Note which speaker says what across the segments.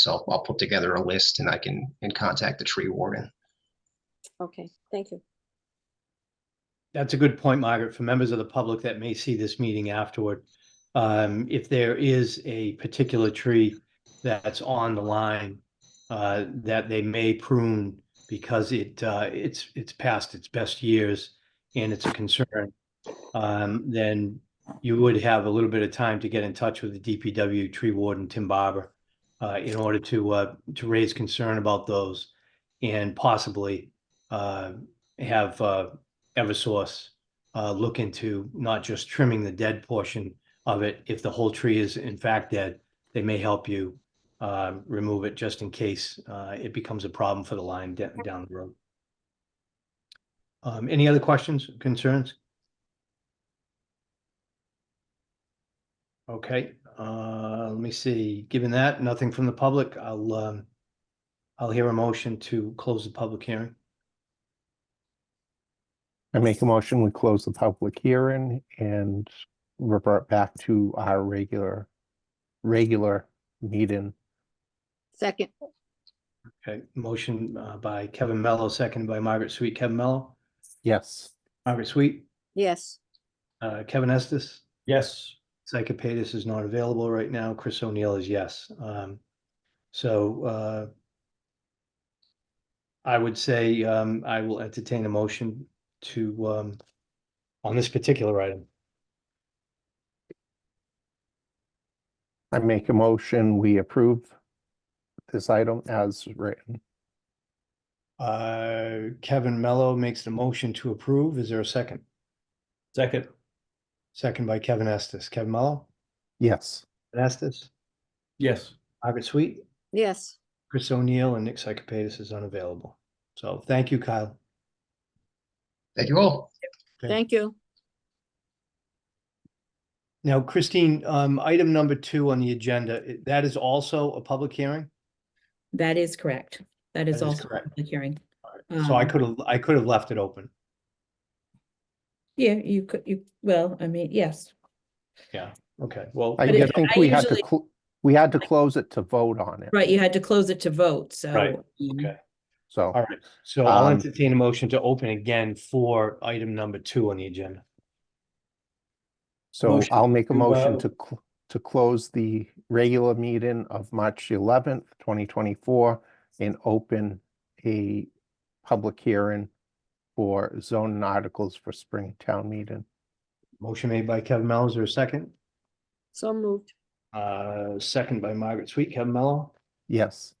Speaker 1: So I'll put together a list and I can, and contact the tree warden.
Speaker 2: Okay, thank you.
Speaker 3: That's a good point, Margaret, for members of the public that may see this meeting afterward. Um, if there is a particular tree that's on the line, uh, that they may prune because it, uh, it's, it's past its best years and it's a concern, um, then you would have a little bit of time to get in touch with the DPW tree warden, Tim Barber, uh, in order to, uh, to raise concern about those and possibly, uh, have, uh, Eversource uh, look into not just trimming the dead portion of it. If the whole tree is in fact dead, they may help you uh, remove it just in case uh, it becomes a problem for the line da- down the road. Um, Any other questions, concerns? Okay, uh, let me see. Given that, nothing from the public, I'll, um, I'll hear a motion to close the public hearing.
Speaker 4: I make a motion, we close the public hearing and revert back to our regular, regular meeting.
Speaker 2: Second,
Speaker 3: Okay, motion uh, by Kevin Mello, seconded by Margaret Sweet. Kevin Mello,
Speaker 4: Yes,
Speaker 3: Margaret Sweet,
Speaker 2: yes,
Speaker 3: uh, Kevin Estes.
Speaker 5: Yes,
Speaker 3: Psychopatis is not available right now. Chris O'Neill is yes. Um, so, uh, I would say, um, I will entertain a motion to, um, on this particular item.
Speaker 4: I make a motion, we approve this item as written.
Speaker 3: Uh, Kevin Mello makes the motion to approve. Is there a second?
Speaker 5: second,
Speaker 3: Second by Kevin Estes. Kevin Mello?
Speaker 4: Yes,
Speaker 3: Estes?
Speaker 5: yes,
Speaker 3: Margaret Sweet?
Speaker 2: yes.
Speaker 3: Chris O'Neill and Nick Psychopatis is unavailable. So thank you, Kyle.
Speaker 1: Thank you all.
Speaker 3: Okay.
Speaker 2: Thank you.
Speaker 3: Now, Christine, um, item number two on the agenda, i- that is also a public hearing?
Speaker 6: That is correct. That
Speaker 3: That
Speaker 6: is
Speaker 3: is
Speaker 6: also a
Speaker 3: correct.
Speaker 6: public hearing.
Speaker 3: So I
Speaker 6: Um,
Speaker 3: could have, I could have left it open.
Speaker 6: Yeah, you could, you, well, I mean, yes.
Speaker 3: Okay, well,
Speaker 4: I
Speaker 6: But it-
Speaker 4: think
Speaker 6: I
Speaker 4: we had to,
Speaker 6: usually-
Speaker 4: cl- we had to close it to vote on it,
Speaker 6: Right, you had to close it to vote, so.
Speaker 3: Right,
Speaker 6: um,
Speaker 3: okay.
Speaker 4: so.
Speaker 3: all right. So I'll
Speaker 4: Um,
Speaker 3: entertain a motion to open again for item number two on the agenda.
Speaker 4: So
Speaker 5: Motion
Speaker 4: I'll make a
Speaker 5: to,
Speaker 4: motion
Speaker 5: uh,
Speaker 4: to, cl- to close the regular meeting of March eleventh, twenty twenty-four and open a public hearing for zoning articles for spring town meeting.
Speaker 3: Motion made by Kevin Mello, is there a second?
Speaker 2: So moved,
Speaker 3: Uh, second by Margaret Sweet, Kevin Mello,
Speaker 4: Yes,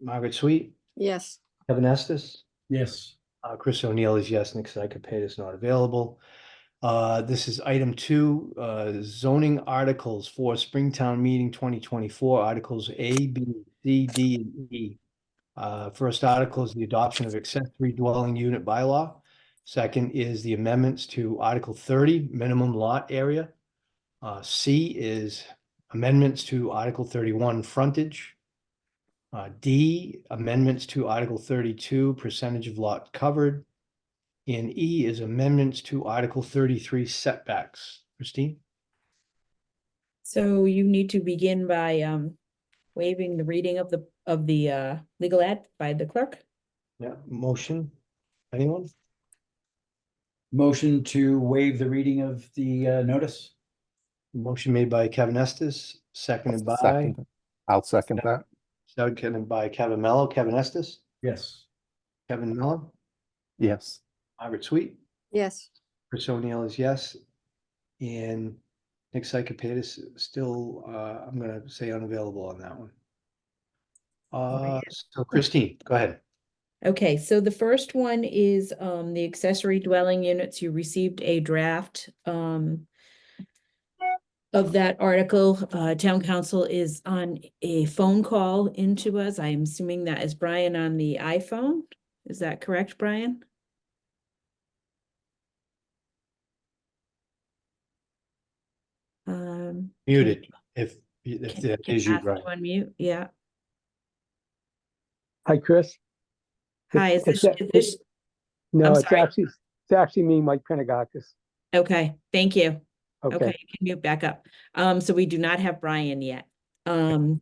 Speaker 3: Margaret Sweet,
Speaker 2: yes.
Speaker 3: Kevin Estes?
Speaker 5: yes,
Speaker 3: Uh, Chris O'Neill is yes, Nick Cycopate is not available. Uh, this is item two, uh, zoning articles for Springtown Meeting twenty twenty-four, articles A, B, C, D, and E. Uh, first article is the adoption of accessory dwelling unit bylaw. Second is the amendments to Article thirty, minimum lot area. Uh, C is amendments to Article thirty-one, frontage. Uh, D, amendments to Article thirty-two, percentage of lot covered. And E is amendments to Article thirty-three setbacks. Christine?
Speaker 6: So you need to begin by, um, waiving the reading of the, of the, uh, legal ad by the clerk.
Speaker 3: Yeah. Motion? Anyone?
Speaker 5: motion to waive the reading of the uh, notice?
Speaker 3: Motion made by Kevin Estes, seconded by,
Speaker 4: second. I'll second that.
Speaker 3: seconded by Kevin Mello. Kevin Estes?
Speaker 5: Yes,
Speaker 3: Kevin Mello?
Speaker 4: Yes,
Speaker 3: Margaret Sweet?
Speaker 2: Yes,
Speaker 3: Chris O'Neill is yes. And Nick Psychopatis still, uh, I'm gonna say unavailable on that one. Uh, so Christine, go ahead.
Speaker 6: Okay, so the first one is, um, the accessory dwelling units. You received a draft, um, of that article. Uh, town council is on a phone call into us. I am assuming that is Brian on the iPhone. Is that correct, Brian? Um.
Speaker 3: Muted, if, if
Speaker 6: can-
Speaker 3: that
Speaker 6: can
Speaker 3: is you,
Speaker 6: ask to
Speaker 3: Brian.
Speaker 6: Unmute, yeah.
Speaker 7: Hi, Chris. It-
Speaker 6: Hi, is
Speaker 7: it's
Speaker 6: this,
Speaker 7: a-
Speaker 6: is this,
Speaker 7: No,
Speaker 6: I'm
Speaker 7: it's
Speaker 6: sorry.
Speaker 7: actually, it's actually me, Mike Pinagakis.
Speaker 6: okay, thank you.
Speaker 7: Okay,
Speaker 6: Okay, you can mute back up. Um, so we do not have Brian yet. Um,